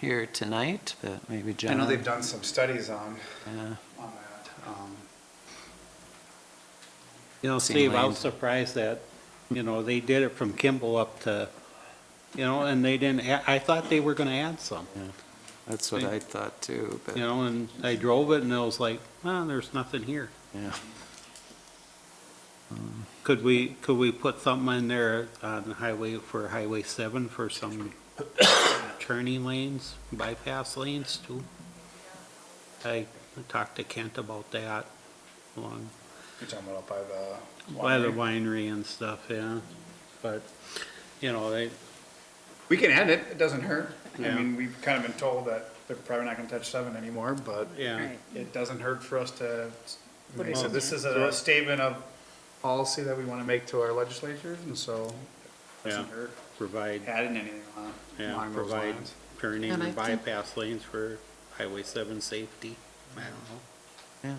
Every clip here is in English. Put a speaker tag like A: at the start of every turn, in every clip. A: here tonight, but maybe John.
B: I know they've done some studies on,
A: Yeah.
B: on that. Um,
A: You know,
C: Steve, I was
A: Sealand.
C: surprised that, you know, they did it from Kimball up to, you know, and they didn't, add- I thought they were gonna add some,
A: That's what I thought too, but,
C: you know, and I drove it and I was like, well, there's nothing here.
A: yeah.
C: Could we, could we put something in there on the highway, for Highway seven for some turning lanes, bypass lanes too? I talked to Kent about that along
B: You're talking about up by the.
C: by the
B: winery.
C: winery and stuff, yeah. But, you know, they,
B: We can end it, it doesn't hurt. I
C: Yeah.
B: mean, we've kind of been told that they're probably not gonna touch seven anymore, but
C: yeah.
D: Right.
B: it doesn't hurt for us to,
D: Put it
B: so
D: in
B: this
D: there.
B: is a statement of policy that we wanna make to our legislatures, and so it doesn't
C: Yeah.
B: hurt
C: provide,
B: adding anything on,
C: yeah,
B: along those
C: provide
B: lines.
C: turning
A: And I
C: and
A: think-
C: bypass lanes for Highway seven safety. I don't know.
A: Yeah.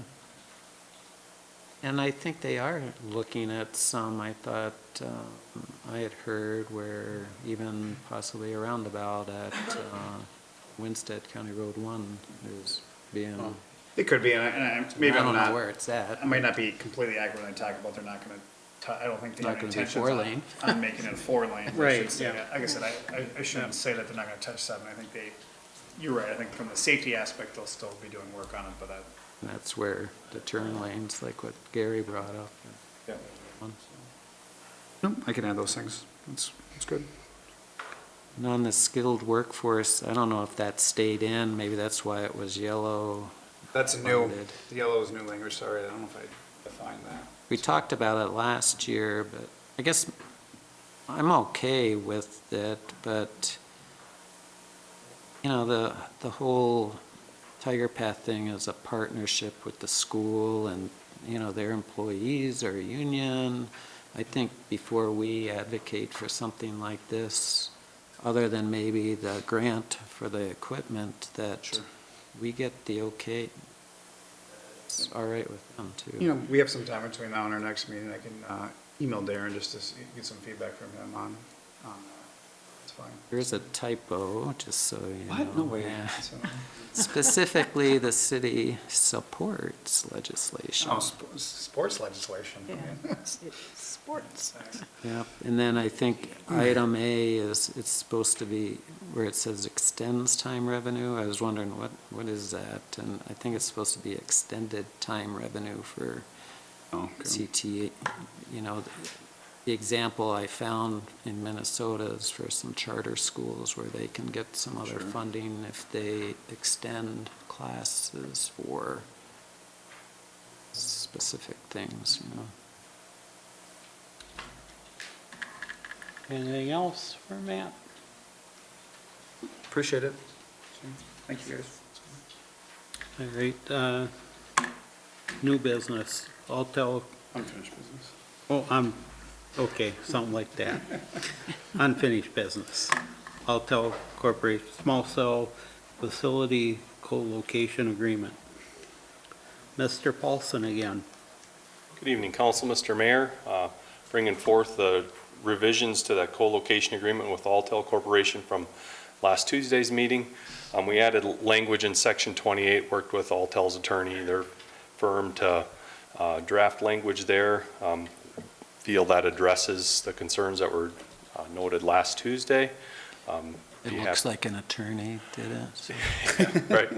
A: And I think they are looking at some, I thought, um, I had heard where even possibly a roundabout at uh, Winstead County Road One is being,
B: It could be, and I, and I,
A: I
B: maybe I'm
A: don't know
B: not,
A: where it's at.
B: I might not be completely accurate when I talk about they're not gonna, t- I don't think they
A: Not
B: have
A: gonna be
B: intentions
A: four
B: on,
A: lane.
B: on making it four lane. I should
C: Right,
B: say
C: yeah.
B: that. Like I said, I, I- I shouldn't say that they're not gonna touch seven, I think they, you're right, I think from the safety aspect, they'll still be doing work on it, but I,
A: And That's where the turn lanes, like what Gary brought up.
B: Nope, I can add those things. That's, that's good.
A: And on the skilled workforce, I don't know if that stayed in, maybe that's why it was yellow.
B: That's a new,
A: Funded.
B: the yellow is new language, sorry, I don't know if I defined that.
A: We talked about it last year, but I guess I'm okay with it, but, you know, the, the whole Tiger Path thing is a partnership with the school and, you know, their employees or a union. I think before we advocate for something like this, other than maybe the grant for the equipment, that
B: Sure.
A: we get the okay, it's all right with them too.
B: You know, we have some time between now and our next meeting, I can, uh, email Darren just to see, get some feedback from him on, on, that. it's fine.
A: There's a typo, just so you know. Yeah.
B: So-
A: Specifically, the city supports legislation.
B: Oh, sp- sports legislation.
D: Yeah,
B: Okay.
D: it's sports.
A: Yep, and then I think item A is, it's supposed to be where it says extends time revenue. I was wondering what, what is that? And I think it's supposed to be extended time revenue for CTA. You know, the example I found in Minnesota is for some charter schools where they can get some other
B: Sure.
A: funding if they extend classes for specific things, you know.
C: Anything else for Matt?
B: Appreciate it. Thank you, guys.
C: All right, uh, new business, Altel,
B: Unfinished business.
C: oh, I'm, okay, something like that. Unfinished business. Altel Corporation Small Cell Facility Co-location Agreement. Mr. Paulson again.
E: Good evening, Council, Mr. Mayor. Uh, Bringing forth the revisions to that co-location agreement with Altel Corporation from last Tuesday's meeting. Um, We added language in Section 28, worked with Altel's attorney, their firm, to uh, draft language there. Um, Feel that addresses the concerns that were uh, noted last Tuesday. Um,
A: It
E: be hap-
A: looks like an attorney did it. so-
E: Right.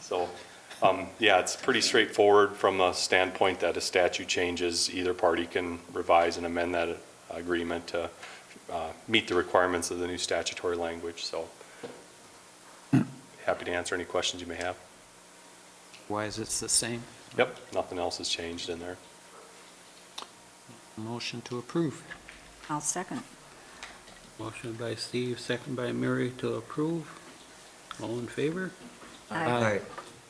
E: So, um, yeah, it's pretty straightforward from a standpoint that a statute changes, either party can revise and amend that uh, agreement to uh, meet the requirements of the new statutory language, so happy to answer any questions you may have.
A: Why is it's the same?
E: Yep, nothing else has changed in there.
A: Motion to approve.
D: I'll second.
C: Motion by Steve, second by Mary to approve. All in favor?
D: Aye.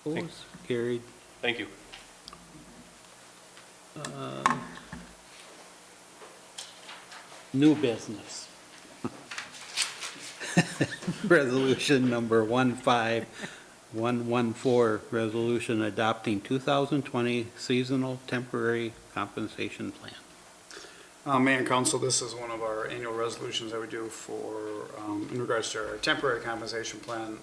C: Opposed? Carried.
E: Thank you.
C: New business. Resolution number 15114, resolution adopting 2020 seasonal temporary compensation plan.
B: Uh, Mayor and council, this is one of our annual resolutions that we do for, um, in regards to our temporary compensation plan.